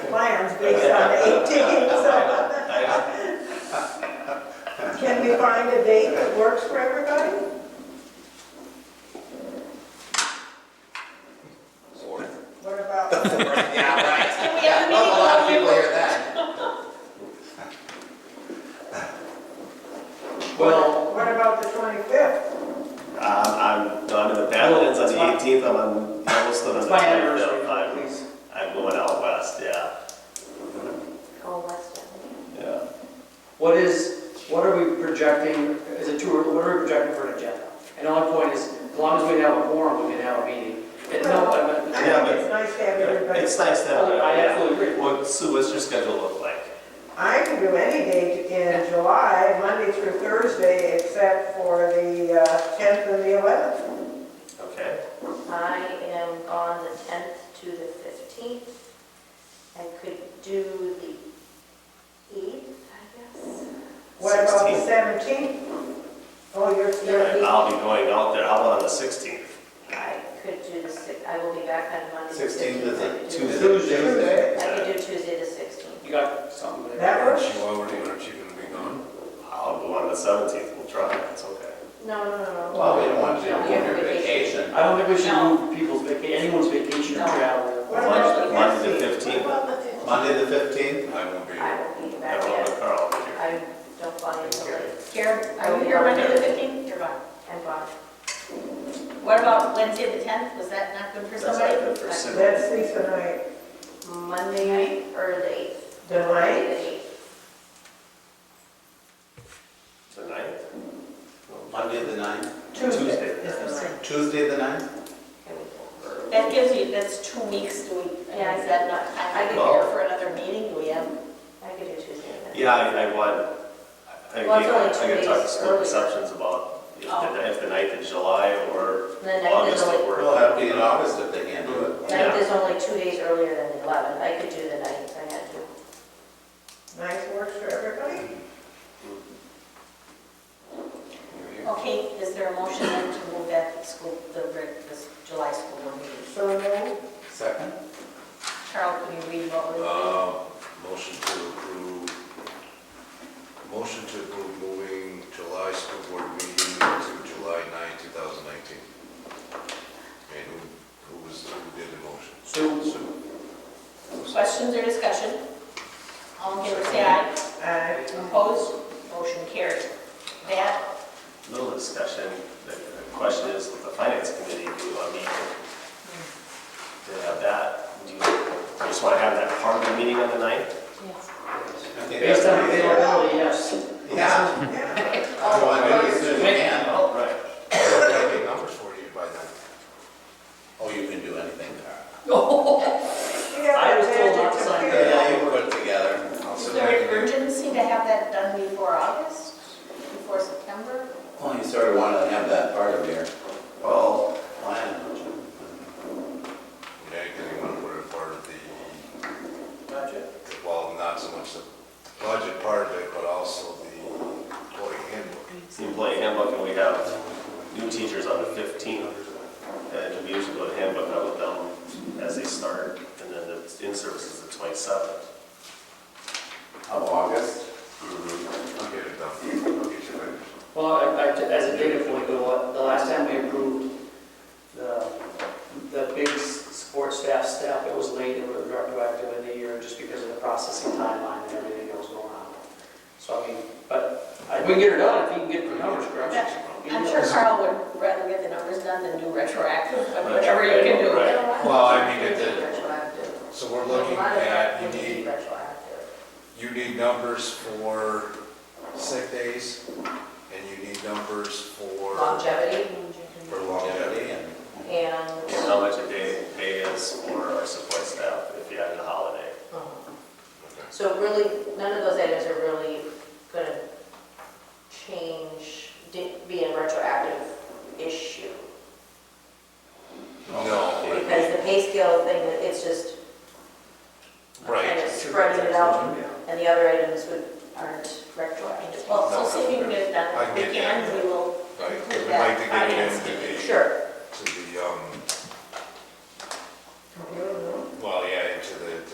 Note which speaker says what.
Speaker 1: plans
Speaker 2: Um,
Speaker 1: based on the 18th, so
Speaker 3: I-
Speaker 1: can we find a date that works for everybody?
Speaker 3: Lord.
Speaker 1: What about,
Speaker 3: Yeah, right.
Speaker 4: Can we have a
Speaker 3: Yeah, not a
Speaker 4: meeting
Speaker 3: lot of
Speaker 4: on
Speaker 3: people
Speaker 4: November?
Speaker 3: hear that. Well,
Speaker 1: what about the 25th?
Speaker 2: Um, I'm gone to the Badlands on the
Speaker 5: Well, it's my-
Speaker 2: eighteenth, I'm on Yellowstone on the
Speaker 5: It's my
Speaker 2: twenty-fifth.
Speaker 5: anniversary,
Speaker 2: I'm,
Speaker 5: please.
Speaker 2: I'm going out west, yeah,
Speaker 4: Oh, West End.
Speaker 2: yeah.
Speaker 5: What is, what are we projecting, is it too, early- what are we projecting for an agenda? And our point is, as long as we have a forum, we can have a meeting. And no,
Speaker 1: I
Speaker 5: I- I-
Speaker 2: Yeah,
Speaker 1: think it's nice to have everybody.
Speaker 2: It's nice to have, it,
Speaker 5: I
Speaker 2: yeah.
Speaker 5: absolutely agree.
Speaker 2: What, Sue, what's your schedule look like?
Speaker 1: I can do any date in July, Monday through Thursday, except for the uh, 10th and the 11th.
Speaker 2: Okay,
Speaker 4: I am on the 10th to the 15th. I could do the 8th, I guess.
Speaker 1: What about the
Speaker 2: 16th.
Speaker 1: 17th? Oh, you're, you're,
Speaker 2: I'll be going out there, how about on the sixteenth?
Speaker 4: I could do the 6th, I will be back on Monday. the
Speaker 3: 16th
Speaker 4: 15th.
Speaker 3: is
Speaker 4: I
Speaker 3: a
Speaker 4: could do
Speaker 3: Tuesday.
Speaker 4: the-
Speaker 5: Tuesday.
Speaker 4: I could do Tuesday the 16th.
Speaker 5: You got something
Speaker 1: that
Speaker 5: there?
Speaker 6: Aren't
Speaker 1: works?
Speaker 6: you already, aren't you gonna be gone?
Speaker 2: I'll go on the seventeenth, we'll try, it's okay.
Speaker 4: No, no, no, no.
Speaker 3: Well, we don't want you to
Speaker 4: No,
Speaker 3: book
Speaker 4: we have
Speaker 3: your
Speaker 4: a vacation.
Speaker 3: vacation.
Speaker 5: I don't think we should
Speaker 4: No.
Speaker 5: move people's vacation, anyone's vacation or
Speaker 4: No.
Speaker 5: travel.
Speaker 1: What about the
Speaker 2: Monday the
Speaker 1: 15th?
Speaker 2: 15th.
Speaker 1: What about the 15th?
Speaker 3: Monday the fifteenth?
Speaker 6: I won't be
Speaker 4: I
Speaker 6: here.
Speaker 4: will be
Speaker 2: I
Speaker 4: back,
Speaker 2: don't
Speaker 4: yeah.
Speaker 2: know, Carl, if you're-
Speaker 4: I don't fly until
Speaker 2: Okay.
Speaker 4: late.
Speaker 7: Karen,
Speaker 4: I
Speaker 7: are
Speaker 4: will
Speaker 7: you here
Speaker 4: not
Speaker 7: Monday the
Speaker 4: be-
Speaker 7: 15th? You're gone.
Speaker 4: And Bob.
Speaker 7: What about Wednesday the 10th? Was that not good for
Speaker 2: That's not
Speaker 7: somebody?
Speaker 2: good for Sue.
Speaker 1: That's Lisa night.
Speaker 4: Monday or the 8th.
Speaker 1: The
Speaker 4: Monday
Speaker 1: night?
Speaker 4: the 8th.
Speaker 2: The ninth?
Speaker 3: Monday the ninth?
Speaker 1: Tuesday.
Speaker 2: Tuesday.
Speaker 1: is the ninth.
Speaker 3: Tuesday the ninth?
Speaker 4: Can we go for-
Speaker 7: That gives you, that's two weeks, do we,
Speaker 4: Yeah.
Speaker 7: yeah, is that not time to
Speaker 2: Well-
Speaker 7: prepare for another meeting? Do we have,
Speaker 4: I could do Tuesday the 9th.
Speaker 2: Yeah, I, I want, I, I
Speaker 4: Well, it's only
Speaker 2: gotta- I
Speaker 4: two
Speaker 2: gotta talk to
Speaker 4: days
Speaker 2: school
Speaker 4: earlier.
Speaker 2: receptions about if
Speaker 7: Oh.
Speaker 2: the, if the ninth in July or
Speaker 4: The ninth is
Speaker 2: August
Speaker 4: only-
Speaker 2: will work.
Speaker 3: Well, that'll be in
Speaker 2: uh,
Speaker 3: August if they can't do it.
Speaker 4: Ninth is only two days earlier than the 11th. I could do the ninth, I had to.
Speaker 1: Ninth works for everybody?
Speaker 7: okay, is there a motion then to move back the school, the, reg- this July school board meeting?
Speaker 1: So no,
Speaker 3: Second?
Speaker 7: Carl, can you read what was?
Speaker 6: Uh, motion to approve, motion to approve moving July school board meeting to July 9, 2019. And who, who was, who did the motion?
Speaker 5: So,
Speaker 6: Sue.
Speaker 7: Questions or discussion? All in favor, say aye.
Speaker 1: I,
Speaker 7: Opposed? Motion carried. That,
Speaker 2: Little discussion, the the question is, with the finance committee, do you want me to
Speaker 4: Hmm.
Speaker 2: have that? Do you you just want to have that part of the meeting on the ninth?
Speaker 5: based on availability, yes.
Speaker 3: Yeah,
Speaker 1: yeah.
Speaker 3: I want to make it soon as you can.
Speaker 2: Oh, right.
Speaker 6: I'll have the numbers for you by then.
Speaker 3: Oh, you can do anything, Carl.
Speaker 1: We have
Speaker 5: I was
Speaker 1: a
Speaker 5: told
Speaker 1: magic
Speaker 5: not to sign
Speaker 1: computer.
Speaker 3: Yeah, you can put it together. I'll
Speaker 7: is
Speaker 3: sit
Speaker 7: there an
Speaker 3: there.
Speaker 7: urgency to have that done before August, before September?
Speaker 3: Well, you sort of want to have that part of your
Speaker 2: Well,
Speaker 3: plan.
Speaker 6: Yeah, because you want to put it part of the,
Speaker 5: Gotcha.
Speaker 6: well, not so much the budget part of it, but also the employee handbook.
Speaker 2: it's the employee handbook, and we have new teachers on the fifteenth. And we usually go to handbook out with them as they start, and then the in-service is the twenty-seventh.
Speaker 3: Of August?
Speaker 6: I'll get it done. I'll get you finished.
Speaker 5: Well, I- I- as a data point, the la- the last time we approved the, the big s- support staff stuff, it was late, it was retroactive in the year, just because of the processing timeline and everything that was going on. So I mean, but I- we can get it done, if you can get the numbers correct.
Speaker 7: I'm sure Carl would rather get the numbers done than do retroactive, but whatever you can do.
Speaker 2: Right.
Speaker 6: Well, I mean, it did-
Speaker 4: Retroactive.
Speaker 6: So we're
Speaker 4: A
Speaker 6: looking
Speaker 4: lot of that
Speaker 6: at,
Speaker 4: would
Speaker 6: you
Speaker 4: be
Speaker 6: need,
Speaker 4: retroactive.
Speaker 6: you need numbers for sick days, and you need numbers for,
Speaker 4: Longevity
Speaker 6: for longevity.
Speaker 3: Longevity and
Speaker 4: and,
Speaker 2: And how much a day pay is for our support staff if you added a holiday.
Speaker 4: um,
Speaker 6: Okay.
Speaker 4: so really, none of those items are really gonna change, di- be a retroactive issue.
Speaker 6: No,
Speaker 4: Because the pay scale thing, it's just kind
Speaker 6: right,
Speaker 4: of spreading it out, and the other items would, aren't retroactive.
Speaker 7: Well, so see if you can get it
Speaker 6: I
Speaker 7: done. If
Speaker 6: can get
Speaker 7: we
Speaker 6: that.
Speaker 7: can, we will
Speaker 6: right,
Speaker 7: include
Speaker 6: we'd
Speaker 7: that
Speaker 6: like to get it
Speaker 7: finance
Speaker 6: into
Speaker 7: meeting.
Speaker 6: the,
Speaker 4: Sure.
Speaker 6: to the, um,
Speaker 1: Computer?